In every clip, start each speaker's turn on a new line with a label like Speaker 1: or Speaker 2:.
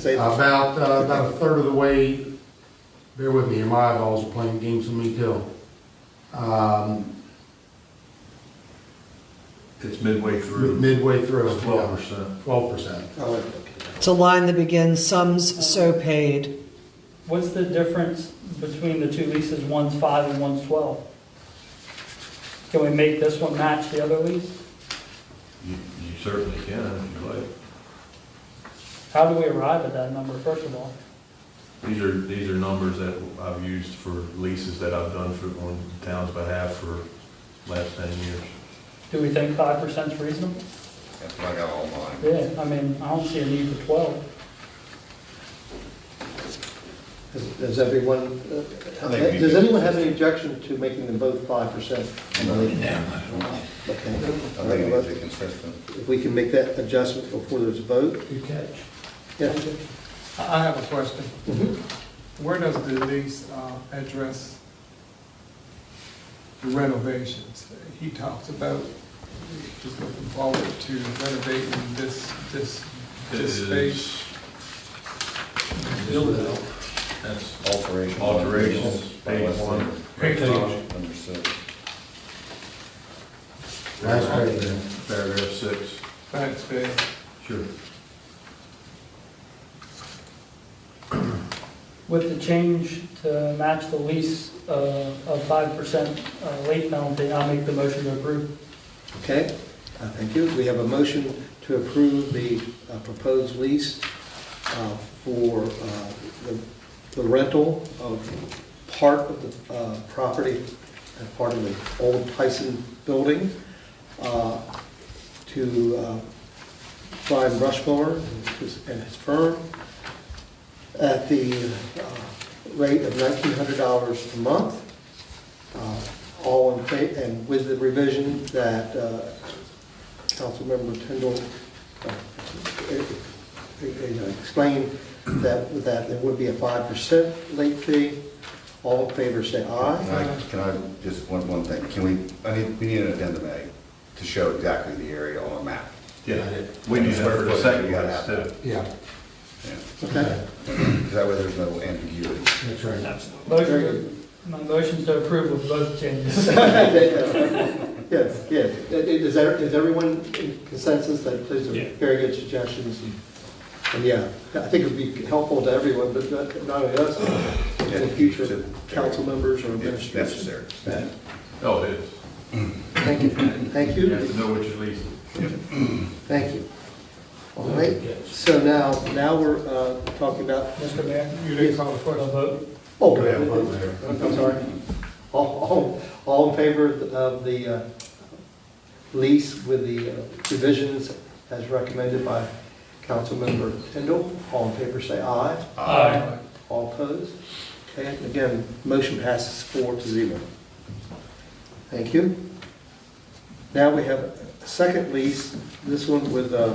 Speaker 1: say that?
Speaker 2: About, uh, about a third of the way, bear with me, my eyeballs are playing games with me too. Um,
Speaker 3: It's midway through.
Speaker 2: midway through.
Speaker 3: Twelve percent.
Speaker 2: Twelve percent.
Speaker 1: I'll let you look at that.
Speaker 4: It's a line that begins, sums so paid.
Speaker 5: What's the difference between the two leases? One's five and one's 12? Can we make this one match the other lease?
Speaker 3: You you certainly can if you like.
Speaker 5: How do we arrive at that number, first of all?
Speaker 3: These are, these are numbers that I've used for leases that I've done for, on town's behalf for last ten years.
Speaker 5: Do we think 5% is reasonable?
Speaker 6: That's what I got all mine.
Speaker 5: Yeah, I mean, I don't see a need for 12.
Speaker 1: Does- Does everyone, uh,
Speaker 6: think we
Speaker 1: does
Speaker 6: do.
Speaker 1: anyone have any objection to making them both five percent?
Speaker 6: I think it's
Speaker 1: Okay.
Speaker 6: consistent.
Speaker 1: If we can make that adjustment before there's a vote?
Speaker 2: Good catch.
Speaker 1: Yeah.
Speaker 7: I have a question.
Speaker 1: Mhm.
Speaker 7: Where does the lease uh, address the renovations? He talks about just looking forward to renovating this, this,
Speaker 3: It
Speaker 7: this space.
Speaker 3: is
Speaker 8: Build it out.
Speaker 3: That's
Speaker 6: Alterations.
Speaker 3: alterations, page one.
Speaker 8: Great page.
Speaker 6: Understood.
Speaker 2: Last page.
Speaker 3: Paragraph six.
Speaker 7: Thanks, Ben.
Speaker 3: Sure.
Speaker 5: With the change to match the lease uh, of 5% uh, late penalty, I'll make the motion to approve.
Speaker 1: Okay, uh, thank you. We have a motion to approve the uh, proposed lease uh, for uh, the- the rental of part of the uh, property, uh, part of the old Tyson building uh, to uh, Brian Rushmore and his- and his firm at the uh, rate of $1,900 a month. Uh, All in favor, and with the revision that uh, Councilmember Tindall uh, e- e- you know, explained that, that there would be a five percent late fee. All in favor, say
Speaker 6: Can
Speaker 1: aye.
Speaker 6: I, can I, just one, one thing, can we, I need, we need an addendum A to show exactly the area on a map.
Speaker 3: Yeah, we need that for the second
Speaker 6: You gotta
Speaker 3: one,
Speaker 6: have
Speaker 3: too.
Speaker 2: Yeah,
Speaker 1: Okay,
Speaker 6: Because that way there's no ambiguity.
Speaker 2: that's right.
Speaker 1: Very
Speaker 5: Motion, my motion's to approve with both changes.
Speaker 1: yes, yes. Is there, is everyone in consensus that those
Speaker 8: Yeah.
Speaker 1: are very good suggestions? and- And yeah, I think it'd be helpful to everyone, but not not only us, but any future council members or
Speaker 6: It's
Speaker 1: administrators.
Speaker 6: necessary.
Speaker 3: Oh, it is.
Speaker 1: Thank you, thank
Speaker 3: You
Speaker 1: you.
Speaker 3: have to know which lease.
Speaker 1: Thank you. All right, so now, now we're uh, talking about,
Speaker 5: Mr. Mayor,
Speaker 7: You didn't call the
Speaker 5: for a
Speaker 7: question.
Speaker 5: vote?
Speaker 1: oh,
Speaker 2: Go ahead, vote,
Speaker 1: I'm
Speaker 2: Mayor.
Speaker 1: sorry. All, all, all in favor of the uh, lease with the uh, revisions as recommended by Councilmember Tindall? All in favor, say aye.
Speaker 5: Aye.
Speaker 1: All opposed? Okay, and again, motion passes four to zero. Thank you. Now we have a second lease, this one with uh,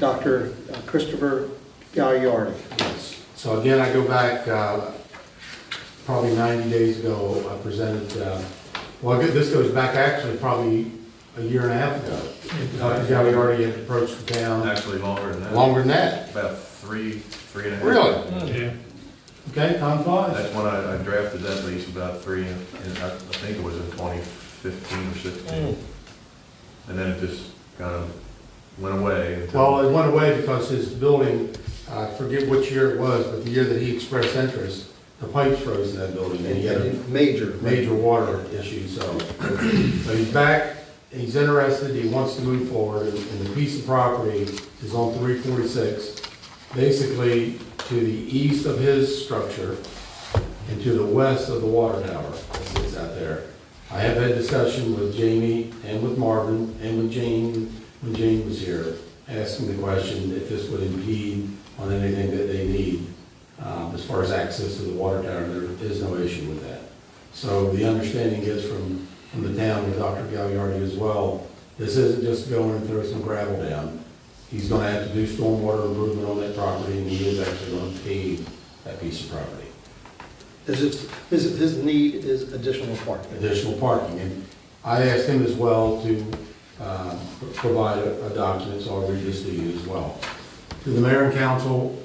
Speaker 1: Dr. Christopher Gagliardi.
Speaker 2: Yes. So again, I go back, uh, probably 90 days ago, I presented, uh, well, this goes back actually probably a year and a half ago. Uh, yeah, we already had approached the town,
Speaker 3: Actually longer than that.
Speaker 2: longer than that.
Speaker 3: About three, three and a half.
Speaker 2: Really?
Speaker 8: Yeah.
Speaker 2: Okay, time flies.
Speaker 3: That's when I, I drafted that lease about three, and and I, I think it was in twenty fifteen or sixteen. And then it just kind of went away. until-
Speaker 2: Well, it went away because his building, uh, I forget which year it was, but the year that he expressed interest, the pipes froze in that building, and he had a
Speaker 1: Major.
Speaker 2: major water issue, so. So he's back, he's interested, he wants to move forward, and and the piece of property is on three forty-six, basically to the east of his structure and to the west of the water tower that sits out there. I have had discussion with Jamie and with Marvin and with Jane, when Jane was here, asking the question if this would impede on anything that they need, um, as far as access to the water tower, there is no issue with that. So the understanding is from, from the town with Dr. Gagliardi as well, this isn't just going and throw some gravel down. He's gonna have to do stormwater improvement on that property, and he is actually gonna pave that piece of property.
Speaker 1: Is it, his, his need is additional parking.
Speaker 2: additional parking. And I asked him as well to uh, provide a a document, so I'll read this to you as well. To the mayor and council,